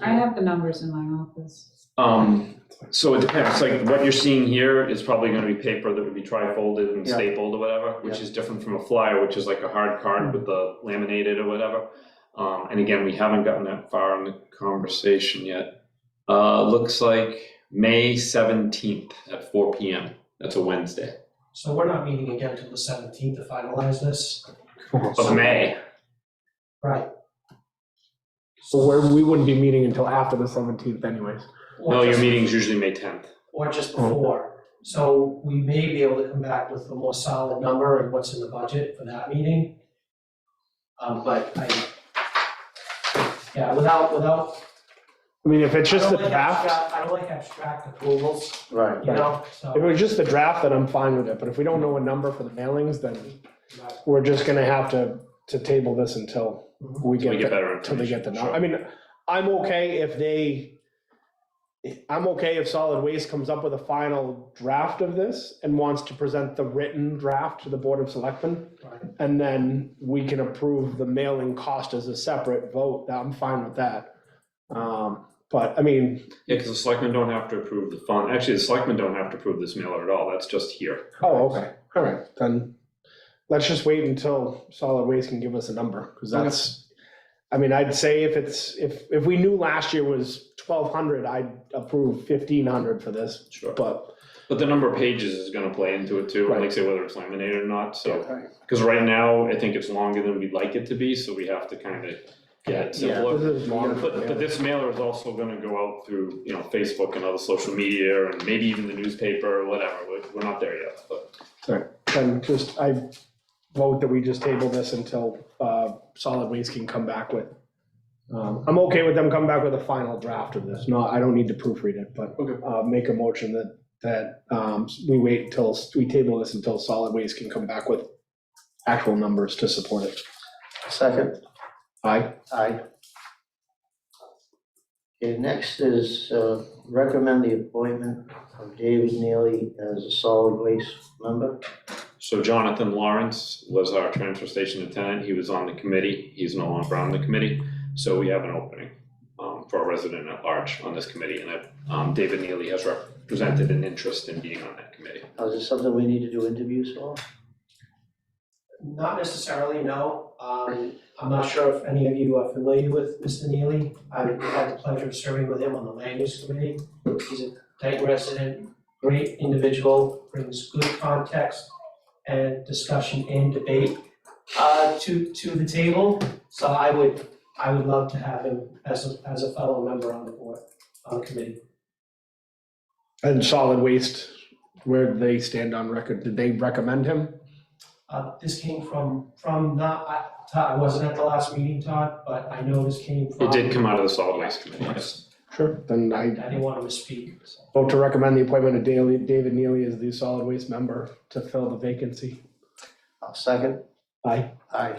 I have the numbers in my office. Um, so it depends, like what you're seeing here is probably gonna be paper that would be tri-folded and Yeah. stapled or whatever, which Yeah. is different from a flyer, which is like a hard card with the laminated or whatever. Um, and again, we haven't gotten that far in the conversation yet. Uh, looks like May seventeenth at four P M. That's a Wednesday So we're not meeting again till the seventeenth to finalize this. of May. Right. So where we wouldn't be meeting until after the seventeenth anyways. Or No, your just- meeting's usually May tenth. Or just before. So we may be able to come back with a more solid number and what's in the budget for that meeting. Um, but I, yeah, without, without. I mean, if it's just I the don't like draft, abstract- I don't like abstract approvals, Right, you right. know, if so. it was just the draft, then I'm fine with it, but if we don't know a number for the mailings, then Right. we're just gonna have to, to table this until Mhm. we Till we get, get the- better till they get the, information, number. sure. I mean, I'm okay if they, I'm okay if solid waste comes up with a final draft of this and wants to present the written draft to the Board of Selectmen. Right. And then we can approve the mailing cost as a separate vote, I'm fine with that. Um, but, I mean, Yeah, because the selectmen don't have to approve the fund. Actually, the selectmen don't have to approve this mailer at all. That's just here. Oh, okay, all right, then, let's just wait until solid waste can give us a number, because that's, I mean, I'd say if it's, if, if we knew last year was twelve hundred, I'd approve fifteen hundred for this, Sure. but. But the number of pages is gonna play into it too, and like Right. say whether it's laminated or not, so, Right. because right now, I think it's longer than we'd like it to be, so we have to kind of get it This simpler. is long. But, but this mailer is also gonna go out through, you know, Facebook and other social media, and maybe even the newspaper, or whatever, we're, we're not there yet, but. Then just, I vote that we just table this until, uh, solid waste can come back with. Um, I'm okay with them coming back with a final draft of this, no, I don't need to proofread it, but, Okay. uh, make a motion that, that, um, we wait until, we table this until solid waste can come back with actual numbers to support it. Second, Aye. aye. Okay, next is uh, recommend the appointment of David Neely as a solid waste member. So Jonathan Lawrence was our transfer station attendant, he was on the committee, he's no longer on the committee, so we have an opening um, for a resident at large on this committee, and that, um, David Neely has represented an interest in being on that committee. Now, Is this something we need to do interviews for? Not necessarily, no. Um, I'm not sure if any of you are familiar with Mr. Neely. I had the pleasure of serving with him on the land use committee. He's a Dayton resident, great individual, brings good context and discussion and debate uh, to, to the table. So I would, I would love to have him as a, as a fellow member on the board, on the committee. And solid waste, where do they stand on record, did they recommend him? Uh, this came from, from not, I, Todd, I wasn't at the last meeting, Todd, but I know this came from. It did come out of the solid waste committee, yes. Sure. Then I I didn't want to misspeak, so. vote to recommend the appointment of Daly- David Neely as the solid waste member to fill the vacancy. I'll Second, Aye. aye.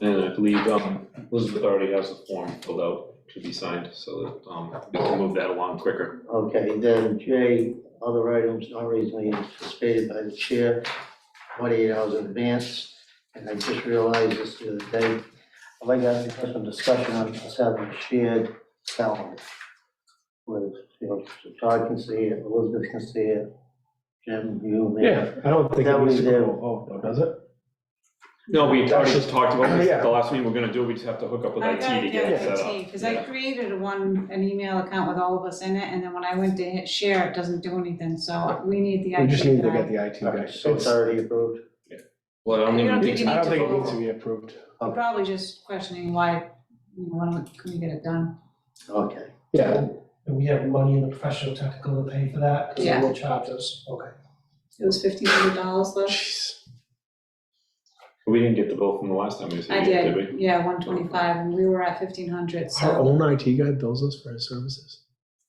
And I believe um, Elizabeth already has a form filled out to be signed, so that um, we can move that along quicker. Okay, then J, other items not reasonably anticipated by the chair, twenty-eight hours in advance. And I just realized this the other day, I'd like to have some discussion on us having a shared calendar. With, you know, so Todd can see it, Elizabeth can see it, Jim, you, me. I don't think it That needs we to go do. to a vote though, does it? No, we already Actually- talked about this at Yeah. the last meeting, we're gonna do, we just have to hook up with I IT gotta to get it get set up. IT, because I Yeah. created a one, an email account with all of us in it, and then when I went to hit share, it doesn't do anything, so we need the IT guy. We just need to get the IT guy. So it's already approved. Well, I don't I even don't need think you I need to don't to think it vote. needs to be approved. We're Probably just questioning why, you know, why don't- couldn't we get it done? Okay, Yeah, And we have money in the professional technical to pay for that, because Yeah. they will charge us, okay. It was fifteen hundred dollars though? jeez. We didn't get the bill from the last time we I said, did we? did, yeah, one twenty-five, and we were at fifteen hundred, Our so. own IT guy bills us for his services.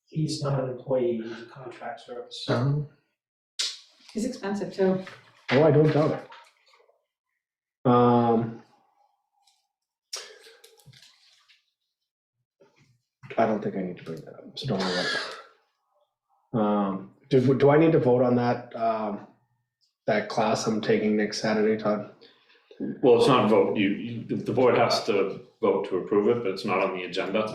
He's not an employee, he's a contract service. Oh, It's expensive too. I don't doubt it. Um. I don't think I need to bring that up, so don't worry about it. Um, do, do I need to vote on that, um, that class I'm taking next Saturday, Todd? Well, it's not a vote, you, you, the board has to vote to approve it, but it's not on the agenda.